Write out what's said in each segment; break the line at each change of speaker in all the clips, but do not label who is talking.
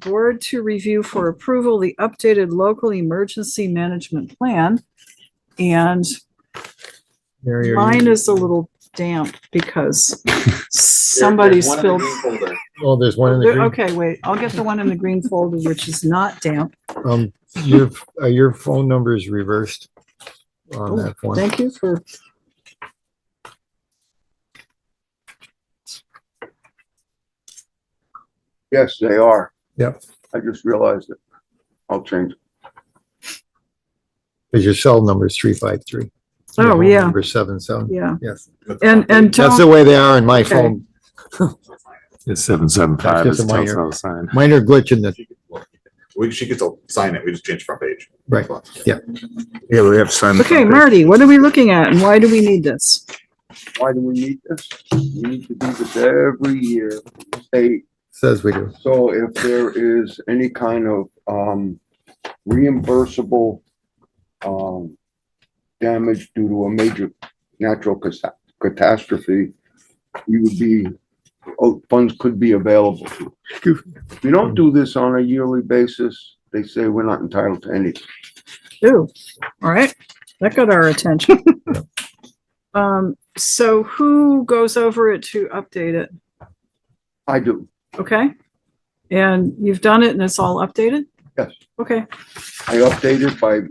board to review for approval the updated local emergency management plan. And
Mary, are
mine
you-
is a little damp because somebody spilled.
Oh, there's one in the
There-
green.
Okay, wait, I'll get the one in the green folder, which is not damp.
Um, your, uh, your phone number is reversed on
Oh,
that one.
Thank you for.
Yes, they are.
Yep.
I just realized it. I'll change. it.
Cause your cell number is three five three.
Oh, yeah.
Number seven, seven.
Yeah.
Yes.
And, and
That's the
don't,
way they are in my
Okay.
phone.
It's seven, seven, five
That's
is
just a minor-
telltale sign.
Minor glitch in the,
We, she gets to sign it, we just change front page.
Right.
Yeah, we have sign.
okay, Marty, what are we looking at and why do we need this?
Why do we need this? We need to do this every year. State,
says we do.
so if there is any kind of, um, reimbursable, um, damage due to a major natural cata- catastrophe, we would be, oh, funds could be available. If you don't do this on a yearly basis, they say we're not entitled to anything.
Ooh, all right, that got our attention. Um, so who goes over it to update it?
I do.
Okay? And you've done it and it's all updated?
Yes.
Okay,
I updated by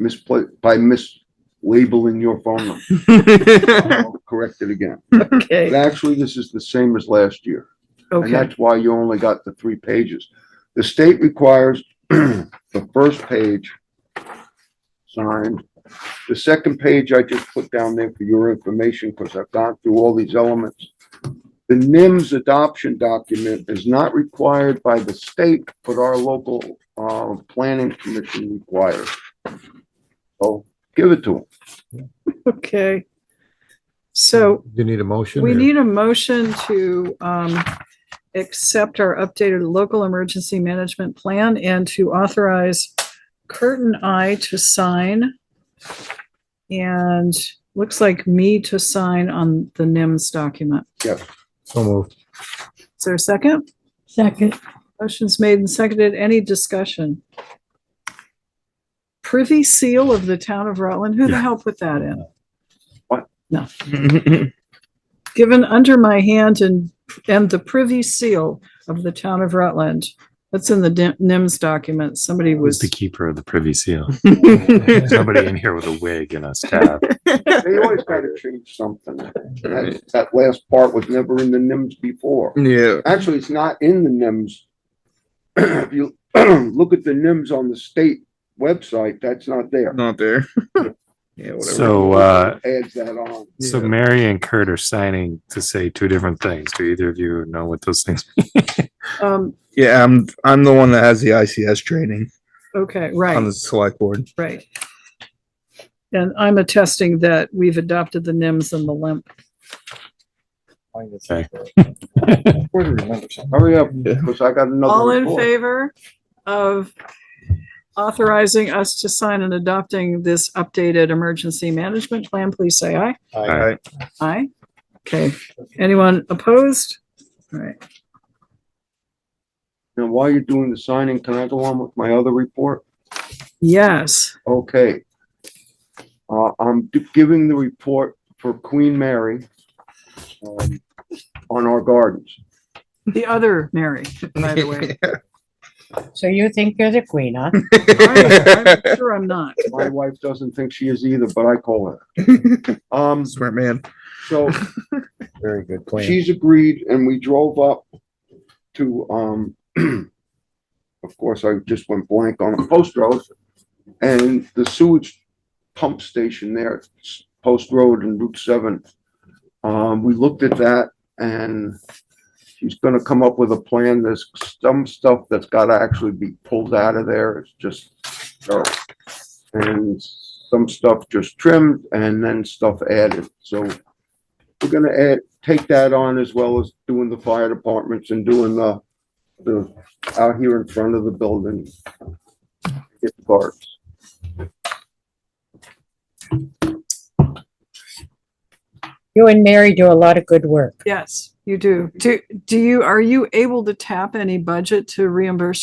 mispla, by mislabeling your phone number. I'll Correct it again. But
okay,
actually, this is the same as last year. And
okay,
that's why you only got the three pages. The state requires the first page signed. The second page I just put down there for your information because I've gone through all these elements. The NIMS adoption document is not required by the state, but our local, uh, planning commission requires. So give it to them.
okay. So
You need a motion?
We
or-
need a motion to um accept our updated local emergency management plan and to authorize Curtin I to sign. And looks like me to sign on the NIMS document.
So moved.
Is there a second?
Second,
Motion's made and seconded. Any discussion? Privy seal of the town of Rutland. Who the hell put that in?
What?
No. Given under my hand and, and the privy seal of the town of Rutland. That's in the Dim- NIMS document. Somebody
Who's
was,
the keeper of the privy seal? Somebody in here with a wig and a staff.
They always gotta change something. That, that last part was never in the NIMS before.
Yeah.
Actually, it's not in the NIMS. If you look at the NIMS on the state website, that's not there.
not there. yeah, whatever.
So, uh,
Adds that on.
so Mary and Kurt are signing to say two different things. Do either of you know what those things? mean?
um,
yeah, I'm I'm the one that has the ICS training
okay,
on
right,
the select board.
right. And I'm attesting that we've adopted the NIMS and the LIMP.
Okay.
Hurry up,
Yeah.
because I got another.
All in
report.
favor of authorizing us to sign and adopting this updated emergency management plan, please say aye.
All right.
Aye. Okay. Anyone opposed? All right.
Now, while you're doing the signing, can I go on with my other report?
Yes.
Okay. Uh, I'm d- giving the report for Queen Mary um, on our gardens.
The other Mary, by the way.
so you think you're the queen, huh?
I'm I'm Sure I'm not.
My wife doesn't think she is either, but I call her. Um,
Smart man.
so
Very good plan.
she's agreed and we drove up to, um, of course, I just went blank on it, Post Road. And the sewage pump station there, s- Post Road and Route Seven. Um, we looked at that and she's gonna come up with a plan. There's some stuff that's gotta actually be pulled out of there. It's just dirt. And some stuff just trimmed and then stuff added. So we're gonna add, take that on as well as doing the fire departments and doing the, the, out here in front of the building. Get the guards.
You and Mary do a lot of good work.
Yes. You do. Do, do you, are you able to tap any budget to reimburse